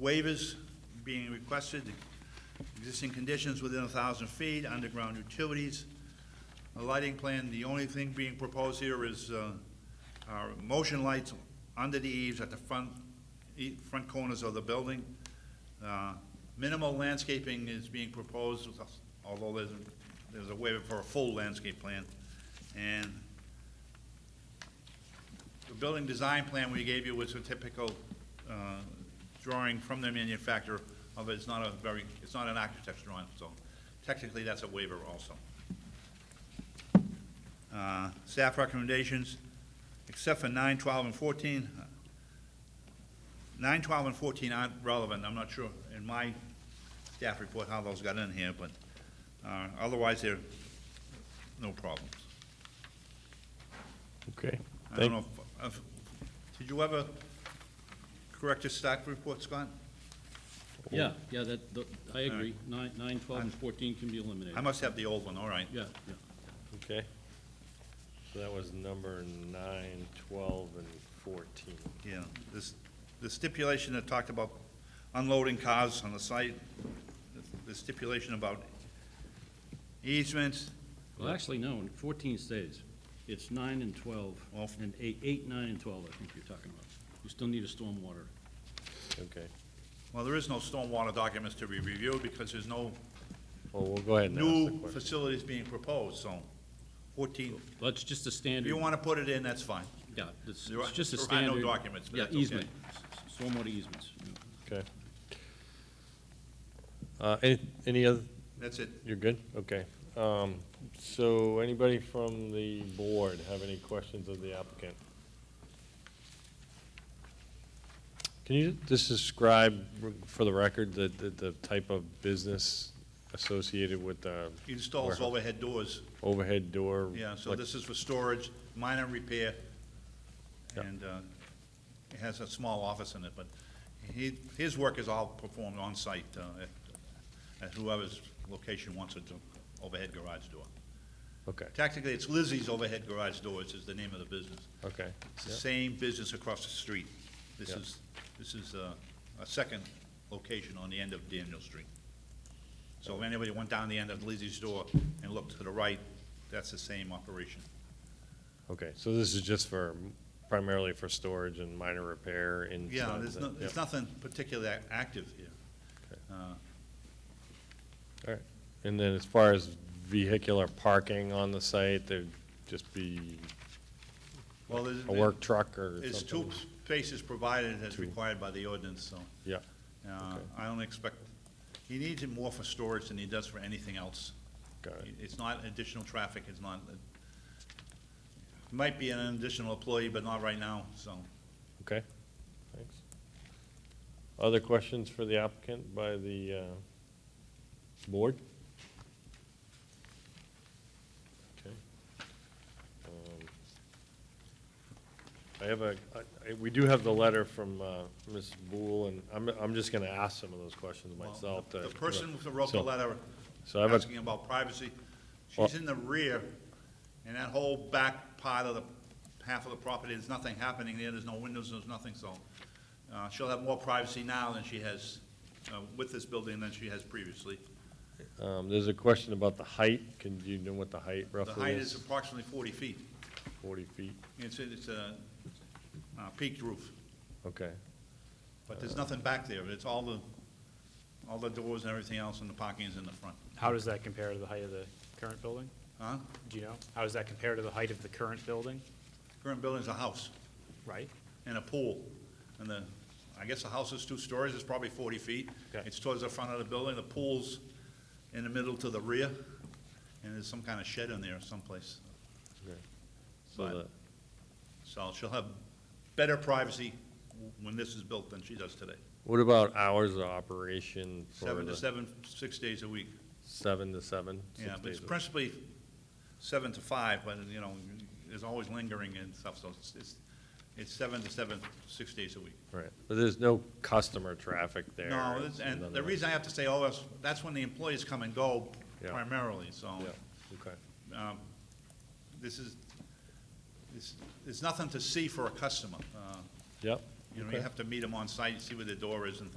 Waivers being requested, existing conditions within 1,000 feet, underground utilities, a lighting plan, the only thing being proposed here is uh, our motion lights under the eaves at the front, e- front corners of the building. Uh, Minimal landscaping is being proposed, although there's, a- there's a waiver for a full landscape plan. And the building design plan we gave you was a typical uh, drawing from the manufacturer, although it's not a very, it's not an architect's drawing, so technically that's a waiver also. Uh, Staff recommendations, except for nine, twelve, and fourteen. uh, Nine, twelve, and fourteen aren't relevant, I'm not sure in my staff report how those got in here, but uh, otherwise they're no problems. Okay. I don't Thank, know, if- if- did you ever correct your staff report, Scott? Yeah, yeah, that, the- I All agree. Nine, nine, twelve, and fourteen can be eliminated. I must have the old one, all right. Yeah, yeah. okay. So that was number nine, twelve, and fourteen. Yeah, this, the stipulation that talked about unloading cars on the site, the stipulation about easements, Well, actually, no, fourteen stays. It's nine and twelve, Well- and eight, eight, nine, and twelve, I think you're talking about. You still need a stormwater. Okay. well, there is no stormwater documents to be reviewed because there's no Well, we'll go ahead and ask the new question. facilities being proposed, so fourteen, Well, it's just a if standard, you want to put it in, that's fine. yeah, it's, There are- it's just a there are no standard. documents, but Yeah, that's okay. easement, S- s- stormwater easements. yeah. Okay. Uh, any, any other, That's it. you're good? Okay. Um, so anybody from the board have any questions of the applicant? Can you just describe for the record the, the, the type of business associated with the Installs Warehouse. overhead doors. overhead door? Yeah, so like- this is for storage, minor repair, Yeah. and uh, it has a small office in it, but he, his work is all performed on-site uh, at- at whoever's location wants it to, overhead garage door. Okay, Tactically, it's Lizzie's Overhead Garage Doors is the name of the business. okay. It's the Yeah. same business across the street. This Yeah. is, this is uh, a second location on the end of Daniel Street. So if anybody went down the end of Lizzie's door and looked to the right, that's the same operation. Okay, so this is just for, primarily for storage and minor repair and. Yeah, there's no, there's Yeah. nothing particularly ac- active here. Okay. Uh, All right. And then as far as vehicular parking on the site, there'd just be Well, there's. a work truck or something? There's two spaces provided as Two. required by the ordinance, so, Yeah, uh, Okay. I don't expect, he needs it more for storage than he does for anything else. got it, It's not additional traffic, it's not, it might be an additional employee, but not right now, so. okay, thanks. Other questions for the applicant by the uh, board? Okay. Um, I have a, I- I- we do have the letter from uh, Ms. Boole, and I'm, I'm just going to ask some of those questions well, myself. The to- the person who wrote the So- letter So I have a- asking about privacy, she's Well- in the rear, and that whole back part of the, half of the property, there's nothing happening there, there's no windows, there's nothing, so. uh, She'll have more privacy now than she has uh, with this building than she has previously. Um, There's a question about the height. Can you know what the height The roughly height is? is approximately forty feet. 40 feet, It's, it's a uh, peaked roof. okay. But Uh. there's nothing back there, it's all the, all the doors and everything else, and the parking is in the front. How does that compare to the height of the current building? Huh? Do you know? How does that compare to the height of the current building, Current building's a house right? and a pool, and the, I guess the house is two stories, it's probably forty feet. Okay. It's towards the front of the building, the pool's in the middle to the rear, and there's some kind of shed in there someplace. okay. So But, the- so she'll have better privacy w- when this is built than she does today. What about hours of operation? for Seven to the- seven, six days a week. Seven to seven? Yeah, six but it's days a- principally seven to five, but, you know, there's always lingering and stuff, so it's- it's, it's seven to seven, six days a week. Right, but there's no customer traffic there? No, it's- it's and another the way. reason I have to say all this, that's when the employees come and go Yeah. primarily, so, Yeah, okay, um, this is, it's, it's nothing to see for a customer. Uh, yep. You know, okay. you have to meet them on site, see where the door is and